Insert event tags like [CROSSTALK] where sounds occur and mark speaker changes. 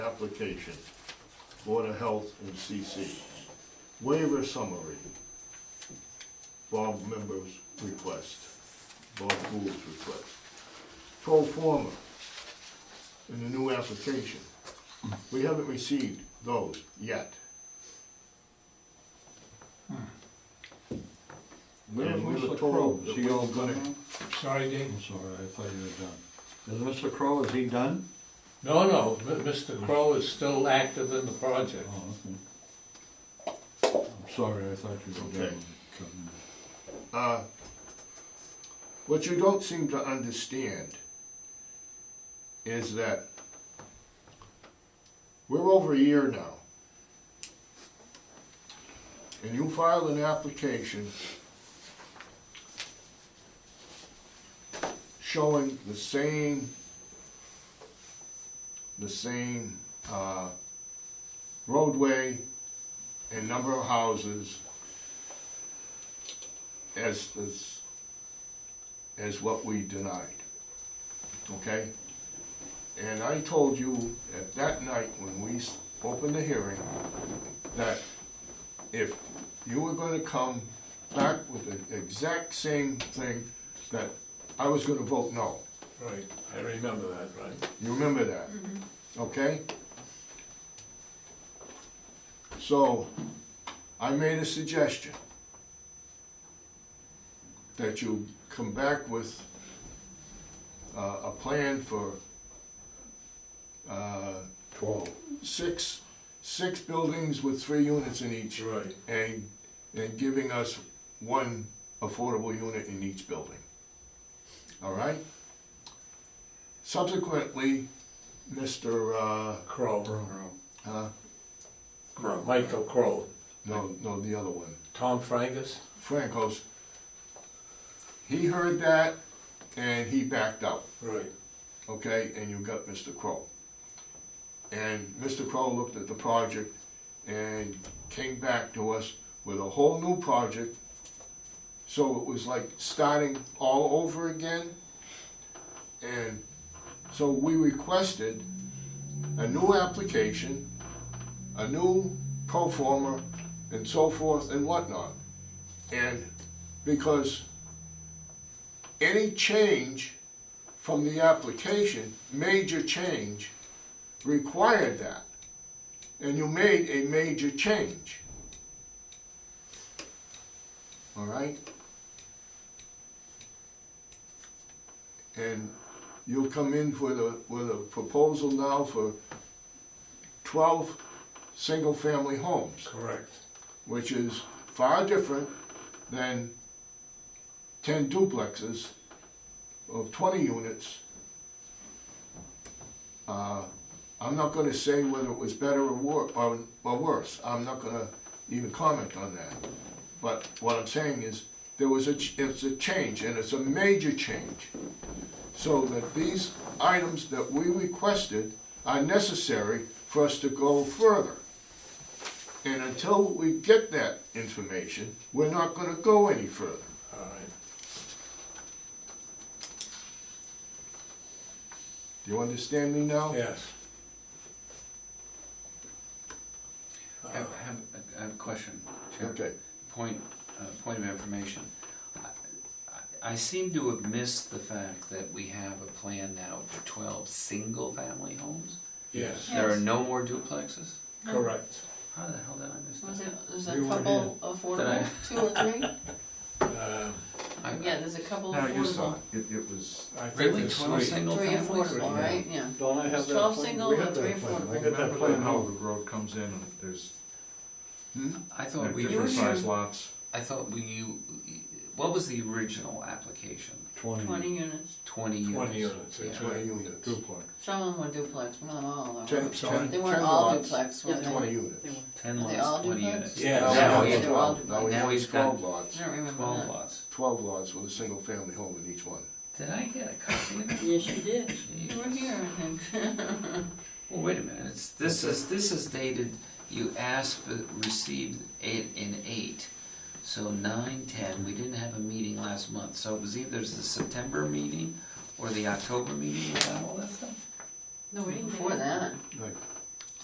Speaker 1: application, Board of Health and CC. Waiver summary, Bob members' request, Bob Gould's request. Pro forma, in the new application. We haven't received those yet. And we were told that
Speaker 2: Is he all
Speaker 1: we're gonna-
Speaker 2: done?
Speaker 3: Sorry, Dave.
Speaker 2: I'm sorry, I thought you were done. Is Mr. Crowe, is he done?
Speaker 3: No, no, M- Mr. Crow is still active in the project.
Speaker 2: Oh, okay. I'm sorry, I thought you were
Speaker 1: Okay.
Speaker 2: done.
Speaker 1: Uh, What you don't seem to understand is that we're over a year now. And you filed an application showing the same, the same, uh, roadway and number of houses as, as, as what we denied, okay? And I told you at that night when we s- opened the hearing, that if you were gonna come back with the exact same thing, that I was gonna vote no.
Speaker 3: Right, I remember that, right?
Speaker 1: You remember that? Okay? So, I made a suggestion that you come back with uh, a plan for uh,
Speaker 2: Twelve.
Speaker 1: six, six buildings with three units in each
Speaker 3: Right.
Speaker 1: and, and giving us one affordable unit in each building. All right? Subsequently, Mr., uh,
Speaker 3: Crow,
Speaker 1: uh,
Speaker 3: Michael Crow,
Speaker 1: no, no, the other one,
Speaker 3: Tom Frangus,
Speaker 1: Franco's, he heard that and he backed out,
Speaker 3: right,
Speaker 1: okay? And you got Mr. Crow. And Mr. Crow looked at the project and came back to us with a whole new project. So it was like starting all over again. And so we requested a new application, a new pro forma, and so forth and whatnot. And because any change from the application, major change, required that. And you made a major change. All right? And you'll come in with a, with a proposal now for twelve single-family homes
Speaker 3: correct.
Speaker 1: which is far different than ten duplexes of twenty units. Uh, I'm not gonna say whether it was better or wor, or, or worse, I'm not gonna even comment on that. But what I'm saying is, there was a, ch- it's a change, and it's a major change. So that these items that we requested are necessary for us to go further. And until we get that information, we're not gonna go any further.
Speaker 3: All right,
Speaker 1: Do you understand me now?
Speaker 3: yes.
Speaker 4: I have, I have a- I have a question, Chair.
Speaker 1: Okay,
Speaker 4: Point, uh, point of information. I- I- I seem to have missed the fact that we have a plan now for twelve single-family homes?
Speaker 3: Yes,
Speaker 4: There are
Speaker 5: Yes.
Speaker 4: no more duplexes?
Speaker 3: correct.
Speaker 4: How the hell did I miss
Speaker 5: Was
Speaker 4: that?
Speaker 5: it, there's a
Speaker 2: We weren't
Speaker 5: couple affordable, two
Speaker 6: [LAUGHS]
Speaker 5: or three?
Speaker 3: Um,
Speaker 4: I-
Speaker 5: Yeah, there's a couple
Speaker 7: No, you saw
Speaker 5: affordable.
Speaker 7: it, it, it was,
Speaker 3: I think
Speaker 4: Really,
Speaker 3: it's
Speaker 4: twelve
Speaker 3: sweet.
Speaker 5: Three
Speaker 4: single-families?
Speaker 5: affordable, right, yeah.
Speaker 2: Don't I
Speaker 5: It's twelve single and three
Speaker 2: I
Speaker 5: affordable.
Speaker 2: got that
Speaker 7: remember that
Speaker 2: plan
Speaker 7: how
Speaker 2: out.
Speaker 7: the road comes in, and there's
Speaker 4: I
Speaker 5: Oh,
Speaker 4: thought we,
Speaker 7: different size
Speaker 5: here.
Speaker 7: lots.
Speaker 4: I thought we, you- what was the original application?
Speaker 5: Twenty units.
Speaker 4: Twenty units?
Speaker 3: Twenty units, that's
Speaker 4: Yeah.
Speaker 1: twenty units.
Speaker 2: Duplex.
Speaker 5: Some of them were duplex, not all though.
Speaker 1: Ten-
Speaker 5: right?
Speaker 1: ten-
Speaker 5: They weren't
Speaker 1: ten
Speaker 5: all
Speaker 1: lots,
Speaker 5: duplex, were they?
Speaker 1: Twenty
Speaker 5: Were
Speaker 1: units.
Speaker 4: Ten
Speaker 5: they
Speaker 4: lots,
Speaker 5: all
Speaker 4: twenty
Speaker 5: duplex?
Speaker 4: units?
Speaker 1: Now
Speaker 3: Yeah.
Speaker 4: Now
Speaker 1: we
Speaker 4: he's
Speaker 1: have
Speaker 5: they're all
Speaker 1: 12. Now we
Speaker 4: Now
Speaker 1: have
Speaker 4: he's
Speaker 1: twelve
Speaker 4: got
Speaker 1: lots,
Speaker 5: I don't remember
Speaker 4: Twelve
Speaker 5: that.
Speaker 4: lots.
Speaker 1: twelve lots with a single family home in each one.
Speaker 4: Did I get a copy of that?
Speaker 5: Yes, you did.
Speaker 4: Gee.
Speaker 5: You were here, I think. [LAUGHS]
Speaker 4: Well, wait a minute, it's, this is, this is dated, you asked for, received eight in eight. So nine, ten, we didn't have a meeting last month, so it was either the September meeting or the October meeting without all that stuff?
Speaker 6: No, we didn't.
Speaker 5: Before that,
Speaker 1: Right.